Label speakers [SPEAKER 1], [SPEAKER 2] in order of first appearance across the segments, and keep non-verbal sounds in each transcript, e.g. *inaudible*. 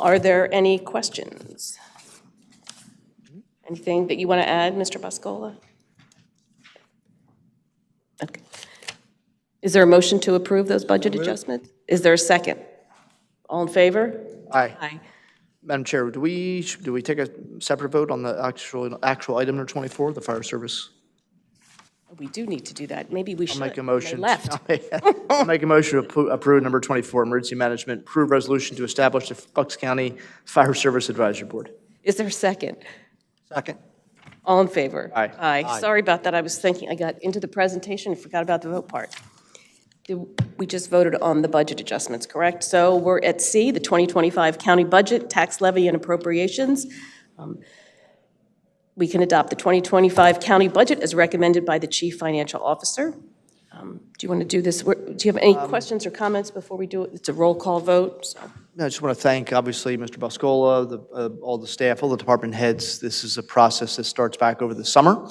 [SPEAKER 1] Are there any questions? Anything that you want to add, Mr. Buscola? Okay. Is there a motion to approve those budget adjustments? Is there a second? All in favor?
[SPEAKER 2] Aye.
[SPEAKER 1] Aye.
[SPEAKER 2] Madam Chair, do we, do we take a separate vote on the actual, actual item number 24, the fire service?
[SPEAKER 1] We do need to do that. Maybe we should.
[SPEAKER 2] Make a
[SPEAKER 1] They
[SPEAKER 2] motion.
[SPEAKER 1] left.
[SPEAKER 2] I'll *laughs* Make a motion to appro- approve number 24, emergency management, approve resolution to establish the Bucks County Fire Service Advisory Board.
[SPEAKER 1] Is there a second?
[SPEAKER 3] Second.
[SPEAKER 1] All in favor?
[SPEAKER 2] Aye.
[SPEAKER 1] Aye. Sorry about that. I was thinking, I got into the presentation and forgot about the vote part. Did- We just voted on the budget adjustments, correct? So we're at C, the 2025 county budget, tax levy and appropriations. Um, We can adopt the 2025 county budget as recommended by the chief financial officer. Um, Do you want to do this? We're- Do you have
[SPEAKER 2] Um,
[SPEAKER 1] any questions or comments before we do it? It's a roll call vote, so.
[SPEAKER 2] I just want to thank, obviously, Mr. Buscola, the, uh, all the staff, all the department heads. This is a process that starts back over the summer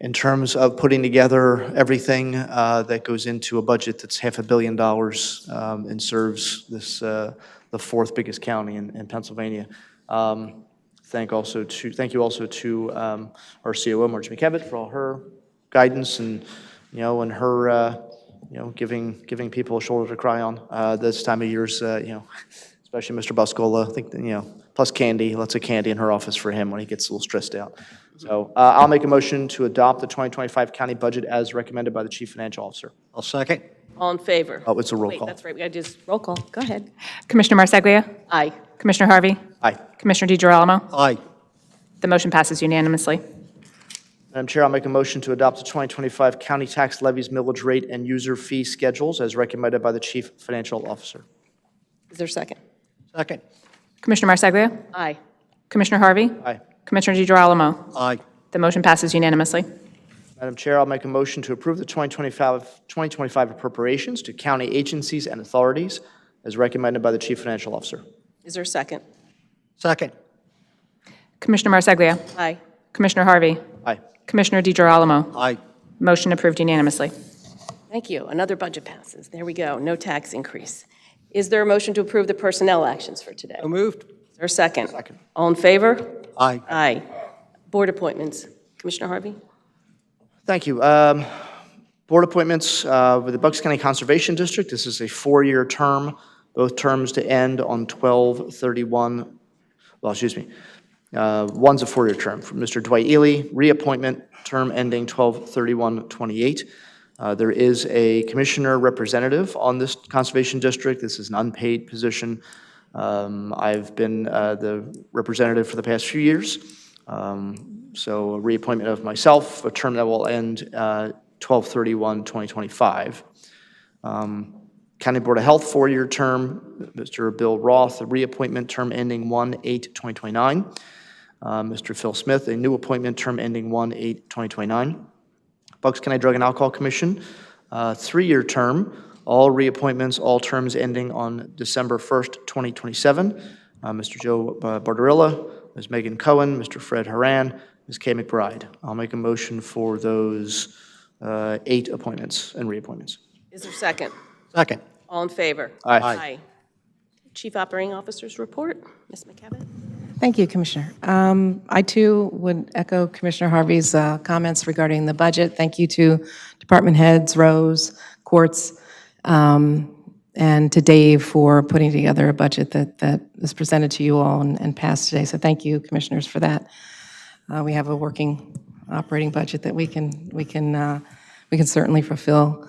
[SPEAKER 2] in terms of putting together everything uh, that goes into a budget that's half a billion dollars um, and serves this, uh, the fourth biggest county in in Pennsylvania. Um, Thank also to, thank you also to um, our COO, Marge McKevitt, for all her guidance and, you know, and her, uh, you know, giving, giving people a shoulder to cry on uh, this time of year's, uh, you know, especially Mr. Buscola. I think, that, you know, plus candy, lots of candy in her office for him when he gets a little stressed out. So uh, I'll make a motion to adopt the 2025 county budget as recommended by the chief financial officer.
[SPEAKER 3] I'll second.
[SPEAKER 1] All in favor?
[SPEAKER 2] Oh, it's a roll
[SPEAKER 1] Wait,
[SPEAKER 2] call.
[SPEAKER 1] that's right, we got to do this roll call. Go ahead.
[SPEAKER 4] Commissioner Marsaglia?
[SPEAKER 1] Aye.
[SPEAKER 4] Commissioner Harvey?
[SPEAKER 2] Aye.
[SPEAKER 4] Commissioner DeGirolamo?
[SPEAKER 3] Aye.
[SPEAKER 4] The motion passes unanimously.
[SPEAKER 2] Madam Chair, I'll make a motion to adopt the 2025 county tax levies, millage rate, and user fee schedules as recommended by the chief financial officer.
[SPEAKER 1] Is there a second?
[SPEAKER 3] Second.
[SPEAKER 4] Commissioner Marsaglia?
[SPEAKER 1] Aye.
[SPEAKER 4] Commissioner Harvey?
[SPEAKER 2] Aye.
[SPEAKER 4] Commissioner DeGirolamo?
[SPEAKER 3] Aye.
[SPEAKER 4] The motion passes unanimously.
[SPEAKER 2] Madam Chair, I'll make a motion to approve the 2025 2025 appropriations to county agencies and authorities as recommended by the chief financial officer.
[SPEAKER 1] Is there a second?
[SPEAKER 3] Second.
[SPEAKER 4] Commissioner Marsaglia?
[SPEAKER 1] Aye.
[SPEAKER 4] Commissioner Harvey?
[SPEAKER 2] Aye.
[SPEAKER 4] Commissioner DeGirolamo?
[SPEAKER 3] Aye.
[SPEAKER 4] Motion approved unanimously.
[SPEAKER 1] Thank you. Another budget passes. There we go. No tax increase. Is there a motion to approve the personnel actions for today?
[SPEAKER 3] So moved.
[SPEAKER 1] Is there a second? Second. All in favor?
[SPEAKER 3] Aye.
[SPEAKER 1] Aye. Board appointments. Commissioner Harvey?
[SPEAKER 2] Thank you. Um, Board appointments uh, with the Bucks County Conservation District, this is a four-year term, both terms to end on 12/31, well, excuse me, uh, one's a four-year term. For Mr. Dwight Ely, reappointment, term ending 12/31/28. Uh, There is a commissioner representative on this Conservation District. This is an unpaid position. Um, I've been uh, the representative for the past few years. Um, So a reappointment of myself, a term that will end uh, 12/31/2025. Um, County Board of Health, four-year term, Mr. Bill Roth, a reappointment term ending 1/8/2029. Uh, Mr. Phil Smith, a new appointment term ending 1/8/2029. Bucks County Drug and Alcohol Commission, uh, three-year term, all reappointments, all terms ending on December 1st, 2027. Uh, Mr. Joe uh, Barbarella, Ms. Megan Cohen, Mr. Fred Haran, Ms. Kay McBride. I'll make a motion for those uh, eight appointments and reappointments.
[SPEAKER 1] Is there a second?
[SPEAKER 3] Second.
[SPEAKER 1] All in favor?
[SPEAKER 2] Aye. Aye.
[SPEAKER 1] Aye. Chief Operating Officer's report. Ms. McKevitt?
[SPEAKER 5] Thank you, Commissioner. Um, I too would echo Commissioner Harvey's uh, comments regarding the budget. Thank you to department heads, Rose, Quartz, um, and to Dave for putting together a budget that that is presented to you all and and passed today. So thank you, Commissioners, for that. Uh, We have a working operating budget that we can, we can, uh, we can certainly fulfill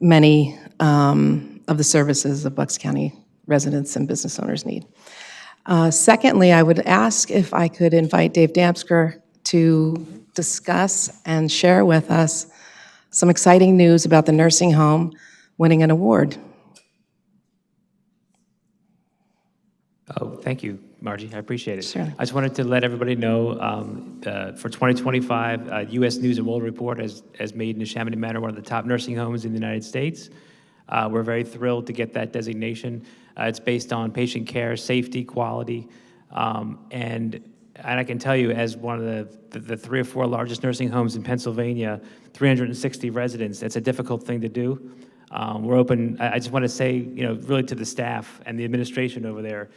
[SPEAKER 5] many um, of the services of Bucks County residents and business owners need. Uh, Secondly, I would ask if I could invite Dave Damsker to discuss and share with us some exciting news about the nursing home winning an award.
[SPEAKER 6] Oh, thank you, Margie. I appreciate it. Sure. I just wanted to let everybody know, um, uh, for 2025, uh, U.S. News and World Report has, has made Neshaminy Manor one of the top nursing homes in the United States. Uh, we're very thrilled to get that designation. Uh, it's based on patient care, safety, quality, um, and and I can tell you, as one of the, the, the three or four largest nursing homes in Pennsylvania, 360 residents, that's a difficult thing to do. Um, we're open, I, I just want to say, you know, really to the staff and the administration over there,